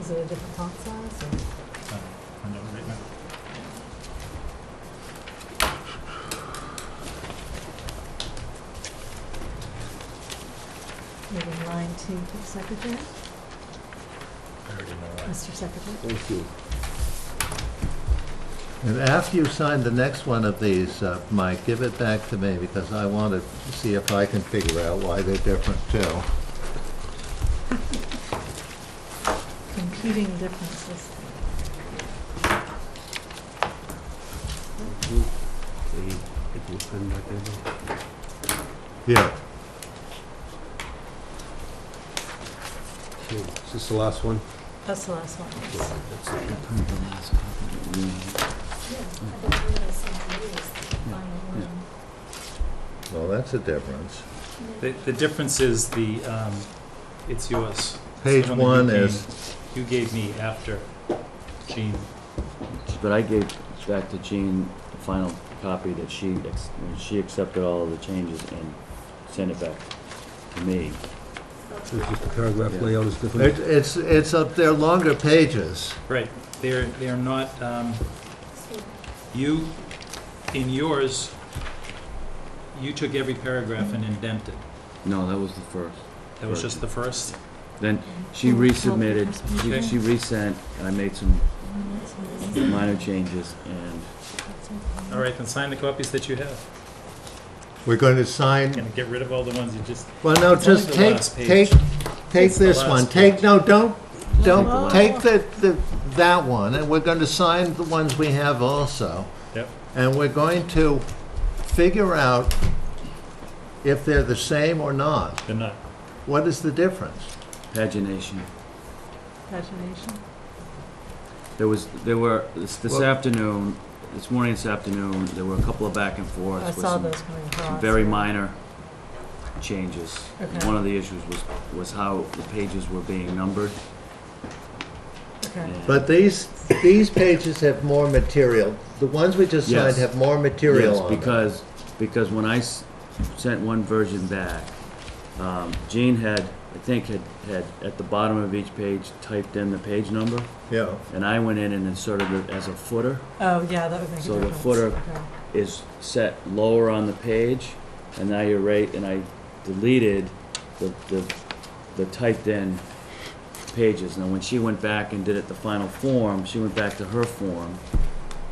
Is it a different font size or? Find out right now. Maybe line two for the secretary, I already know why. Mr. Secretary. Thank you. And after you sign the next one of these, uh, Mike, give it back to me because I want to see if I can figure out why they're different too. Computing differences. Yeah. Is this the last one? That's the last one. Well, that's a difference. The, the difference is the, um, it's yours. Page The one that you is, gave- You gave me after Jean. But I gave back to Jean the final copy that she, ex- when she accepted all of the changes and sent it back to me. So it's just the paragraph Yeah. layout is different? it- it's, it's up there longer pages. Right, they're, they're not, um, you, in yours, you took every paragraph and indented. No, that was the first. That was just the first? Then she resubmitted, Okay. she- she resent, and I made some minor changes, and All right, then sign the copies that you have. We're going to sign, Gonna get rid of all the ones you just, well, no, It's only just the take, last take, page. take It's the this last one. Take, page. no, don't, don't, Oh. take the, the, that one. And we're going to sign the ones we have also. yep, And we're going to figure out if they're the same or not. they're not. What is the difference? pagination. Pagination. There was, there were, this this Well- afternoon, this morning, this afternoon, there were a couple of back and forths I with saw some those coming across. very minor changes. Okay. One of the issues was, was how the pages were being numbered. Okay, and- But these, these pages have more material. The ones we just signed Yes. have more material Yes, on them. because, because when I s- sent one version back, um, Jean had, I think, had, had at the bottom of each page typed in the page number, Yeah, and I went in and inserted it as a footer, oh, yeah, that would make a difference. So the footer- Okay. is set lower on the page, and now you're right, and I deleted the, the, the typed-in pages. Now, when she went back and did it the final form, she went back to her form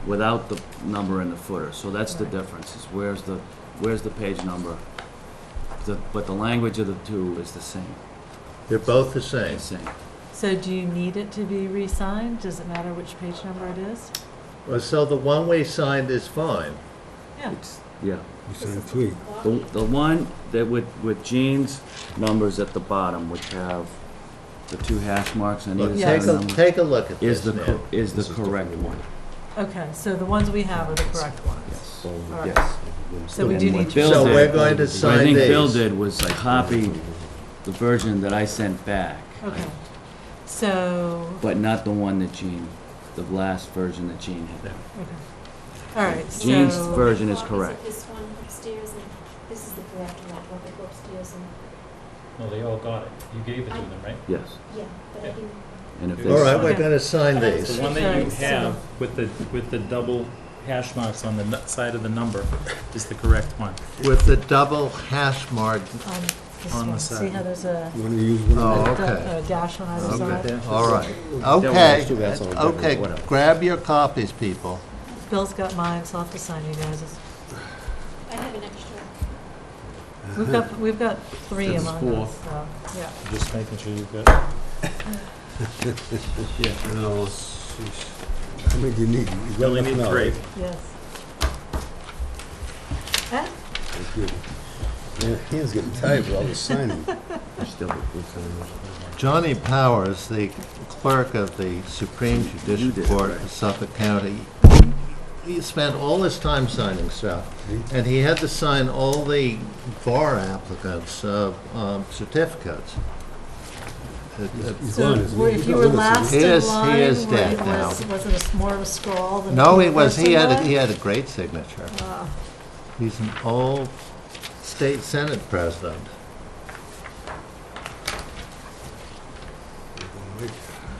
without the number in the footer. So that's the Right. difference, is where's the, where's the page number? The, but the language of the two is the same, they're both the the same. same. So do you need it to be re-signed? Does it matter which page number it is? Well, So the one we signed is fine. Yeah. It's, yeah. You signed three. The, the one that with, with Jean's numbers at the bottom, which have the two hash marks on Look, either side take of the a, number. take a look at Is this the, now. cor- is the This is the correct correct one, Okay, so the ones we have are the correct ones. yes. All right. Yes. So we do need to. Bill So did. we're going to What I sign think Bill these. did was I copied the version that I sent back, Okay, so, but not the one that Jean, the last version that Jean had. okay. All right, so. Jean's version is correct. This one upstairs, and this is the correct one, what they go upstairs, and, No, they all got it. You gave it to them, right? Yes, yeah, but I Yeah. didn't. and if All All there's, right, we're going to sign The these. one that you Okay, so- have with the, with the double hash marks on the nu- side of the number is the correct one. With the double hash mark. On this On the one, see side. how there's a You want to use one Oh, of a okay. da- a dash on either side? Okay, All right. worry, Okay, it's too bad, so we'll do it, okay, whatever. grab your copies, people. Bill's got mine, so I'll have to sign you guys. I have an extra. We've got, we've got three This is among four. us, so, yeah. Just making sure you've got. them? No, sheesh. How many do you need? You got Only enough need now, three. right? Yes. Eh? Thank you. Man, hands getting tired with all this signing. Johnny Powers, the clerk of the Supreme You Judicial did it, Court right. of Suffolk County, he spent all his time signing stuff. Mm-hmm. And he had to sign all the bar applicants' uh, um, certificates. It- it- He's So, gone, isn't were- he? if He's you not were with us, last is He in is- he line, is were you- dead now. was, was it a s'more of a scroll? than No, the he was, he person had, a- was? he had a great signature. He's an old state senate president.